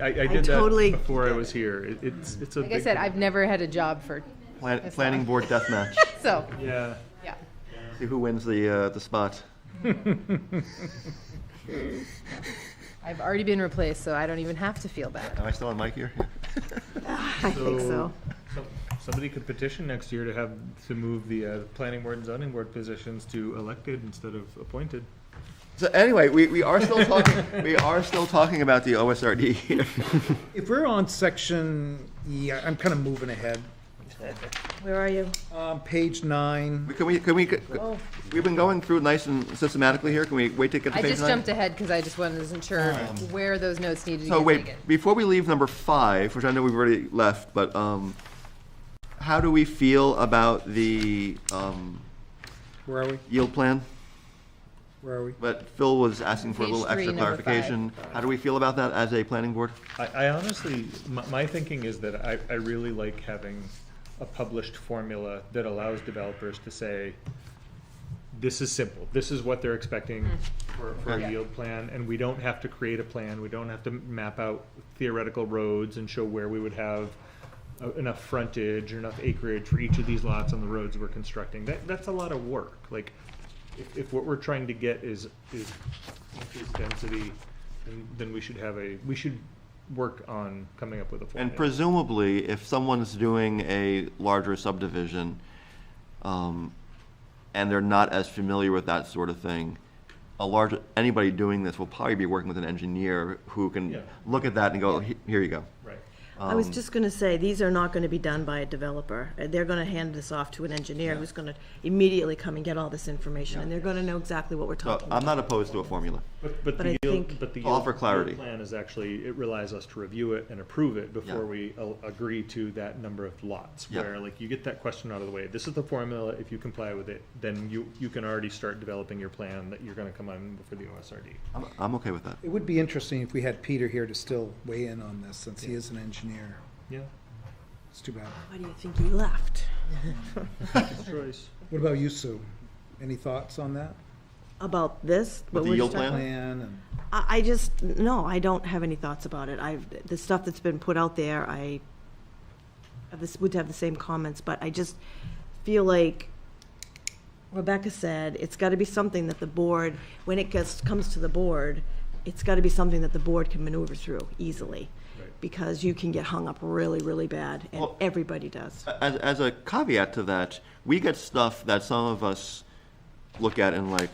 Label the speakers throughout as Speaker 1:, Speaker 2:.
Speaker 1: I, I did that
Speaker 2: totally
Speaker 1: before I was here. It, it's it's a
Speaker 3: Like I said, I've never had a job for,
Speaker 4: Plan- planning board death match.
Speaker 3: so,
Speaker 1: yeah.
Speaker 3: yeah.
Speaker 4: See who wins the uh, the spot.
Speaker 3: I've already been replaced, so I don't even have to feel bad.
Speaker 4: Am I still on mic here?
Speaker 2: I think so.
Speaker 1: some- Somebody could petition next year to have to move the uh, planning board and zoning board positions to elected instead of appointed.
Speaker 4: So anyway, we, we are still talking we are still talking about the OSRD here.
Speaker 5: If we're on section, yeah, I'm kind of moving ahead.
Speaker 2: Where are you?
Speaker 5: Um, page nine,
Speaker 4: Can we can we we've been going through nice and systematically here. Can we wait to get to
Speaker 3: I
Speaker 4: page
Speaker 3: just
Speaker 4: nine?
Speaker 3: jumped ahead because I just wasn't as sure where those notes needed to
Speaker 4: Um, So
Speaker 3: get
Speaker 4: wait,
Speaker 3: taken.
Speaker 4: before we leave number five, which I know we've already left, but um, how do we feel about the um,
Speaker 5: where are we?
Speaker 4: yield plan?
Speaker 5: Where are we?
Speaker 4: But Phil was asking for a
Speaker 3: Page
Speaker 4: little
Speaker 3: three,
Speaker 4: extra
Speaker 3: number five.
Speaker 4: clarification. How do we feel about that as a planning board?
Speaker 1: I, I honestly, my, my thinking is that I, I really like having a published formula that allows developers to say, this is simple, this is what they're expecting for, for
Speaker 4: Yeah.
Speaker 1: a yield plan, and we don't have to create a plan, we don't have to map out theoretical roads and show where we would have uh, enough frontage or enough acreage for each of these lots on the roads we're constructing. That, that's a lot of work, like, if, if what we're trying to get is, is increased density, then, then we should have a, we should work on coming up with a formula.
Speaker 4: And presumably, if someone's doing a larger subdivision, um, and they're not as familiar with that sort of thing, a large, anybody doing this will probably be working with an engineer who
Speaker 1: Yeah.
Speaker 4: can look at that and go, "He- here you go.
Speaker 1: Right.
Speaker 2: I
Speaker 4: Um,
Speaker 2: was just gonna say, these are not gonna be done by a developer. Uh, They're gonna hand this off to an engineer who's gonna immediately come and get all this information, and they're gonna know exactly what we're
Speaker 4: So
Speaker 2: talking about.
Speaker 4: I'm not opposed to a formula.
Speaker 1: But, but
Speaker 2: But
Speaker 1: the
Speaker 2: I
Speaker 1: yield,
Speaker 2: think-
Speaker 1: but the
Speaker 4: All
Speaker 1: yield.
Speaker 4: for clarity.
Speaker 1: yield Plan is actually, it relies us to review it and approve it before
Speaker 4: Yeah.
Speaker 1: we a- agree to that number of lots.
Speaker 4: Yeah.
Speaker 1: Where like you get that question out of the way, this is the formula, if you comply with it, then you, you can already start developing your plan that you're gonna come on for the OSRD.
Speaker 4: I'm, I'm okay with that.
Speaker 5: It would be interesting if we had Peter here to still weigh in on this, since he is an engineer.
Speaker 1: Yeah,
Speaker 5: It's too bad.
Speaker 2: Why do you think he left?
Speaker 1: it's choice.
Speaker 5: What about you, Sue? Any thoughts on that?
Speaker 2: About this? what
Speaker 4: the
Speaker 2: we're
Speaker 4: yield
Speaker 2: talking-
Speaker 4: plan?
Speaker 5: Plan and,
Speaker 2: I, I just, no, I don't have any thoughts about it. I've, the stuff that's been put out there, I have this, would have the same comments, but I just feel like Rebecca said, it's gotta be something that the board, when it gets, comes to the board, it's gotta be something that the board can maneuver through easily. Because you can get hung up really, really bad, and
Speaker 4: Well-
Speaker 2: everybody does.
Speaker 4: As, as a caveat to that, we get stuff that some of us look at in like,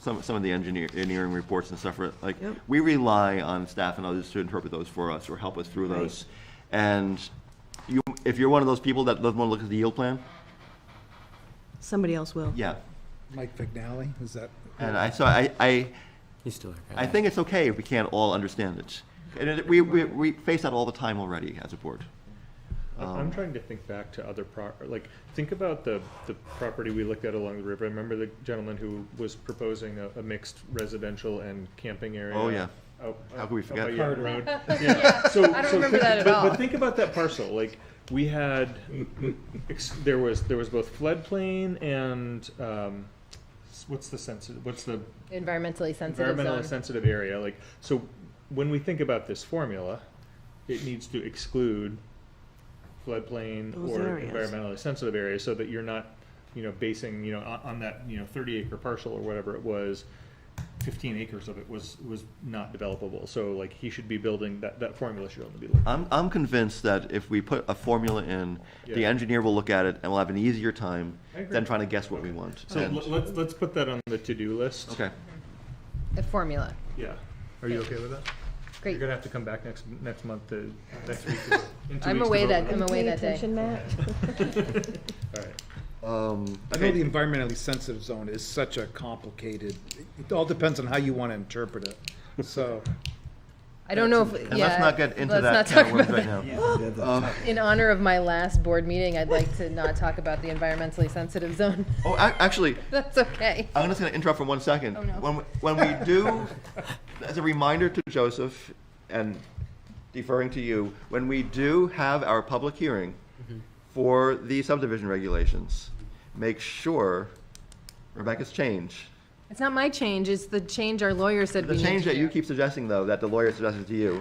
Speaker 4: some, some of the engineer, engineering reports and stuff, like,
Speaker 2: Yep.
Speaker 4: we rely on staff and others to interpret those for us or help us through
Speaker 2: Right.
Speaker 4: those. And you, if you're one of those people that doesn't want to look at the yield plan,
Speaker 2: Somebody else will.
Speaker 4: yeah.
Speaker 5: Mike Vignali, is that?
Speaker 4: And I, so I, I,
Speaker 6: He's still here.
Speaker 4: I think it's okay if we can't all understand it. And it- we, we, we face that all the time already as a board.
Speaker 1: I'm
Speaker 4: Um,
Speaker 1: I'm trying to think back to other pro, like, think about the, the property we looked at along the river. I remember the gentleman who was proposing a, a mixed residential and camping area.
Speaker 4: Oh, yeah.
Speaker 1: Out,
Speaker 4: How could we
Speaker 1: out by
Speaker 4: forget?
Speaker 1: Yonge Road. Yeah. So,
Speaker 3: I don't
Speaker 1: so
Speaker 3: remember
Speaker 1: think-
Speaker 3: that at
Speaker 1: but-
Speaker 3: all.
Speaker 1: But think about that parcel, like, we had, ex- there was, there was both floodplain and, um, s- what's the sensitive, what's the
Speaker 3: Environmentally sensitive
Speaker 1: environmentally
Speaker 3: zone.
Speaker 1: sensitive area, like, so when we think about this formula, it needs to exclude floodplain
Speaker 2: Those
Speaker 1: or
Speaker 2: areas.
Speaker 1: environmentally sensitive areas, so that you're not, you know, basing, you know, on, on that, you know, thirty acre parcel or whatever it was, fifteen acres of it was, was not developable, so like, he should be building, that, that formula should only be like,
Speaker 4: I'm, I'm convinced that if we put a formula in, the
Speaker 1: Yeah.
Speaker 4: engineer will look at it and we'll have an easier time
Speaker 1: I agree.
Speaker 4: than trying to guess what we want.
Speaker 1: so
Speaker 4: And-
Speaker 1: let- let's, let's put that on the to-do list.
Speaker 4: Okay,
Speaker 3: A formula.
Speaker 1: Yeah. Are you okay with that? You're
Speaker 3: Great.
Speaker 1: gonna have to come back next, next month to, next week. to- in two
Speaker 3: I'm
Speaker 1: weeks to
Speaker 3: away
Speaker 1: vote on
Speaker 3: that,
Speaker 1: it.
Speaker 3: I'm away
Speaker 2: Pay
Speaker 3: that day.
Speaker 2: attention, Matt.
Speaker 1: All right.
Speaker 4: um,
Speaker 5: I know the environmentally sensitive zone is such a complicated, it all depends on how you want to interpret it. So,
Speaker 3: I don't know if, yeah.
Speaker 4: and let's not get into
Speaker 3: let's
Speaker 4: that
Speaker 3: not talk
Speaker 4: kind of worms
Speaker 3: about
Speaker 4: right
Speaker 3: that.
Speaker 4: now.
Speaker 3: In honor of my last board meeting, I'd like to not talk about the environmentally sensitive zone.
Speaker 4: Oh, ac- actually,
Speaker 3: That's okay.
Speaker 4: I'm just gonna interrupt for one second.
Speaker 3: Oh, no.
Speaker 4: When, we- when we do, as a reminder to Joseph and deferring to you, when we do have our public hearing
Speaker 1: Mm-hmm.
Speaker 4: for the subdivision regulations, make sure Rebecca's change,
Speaker 3: It's not my change, it's the change our lawyer said we
Speaker 4: the
Speaker 3: need to
Speaker 4: change that you
Speaker 3: do.
Speaker 4: keep suggesting though, that the lawyer suggested to you,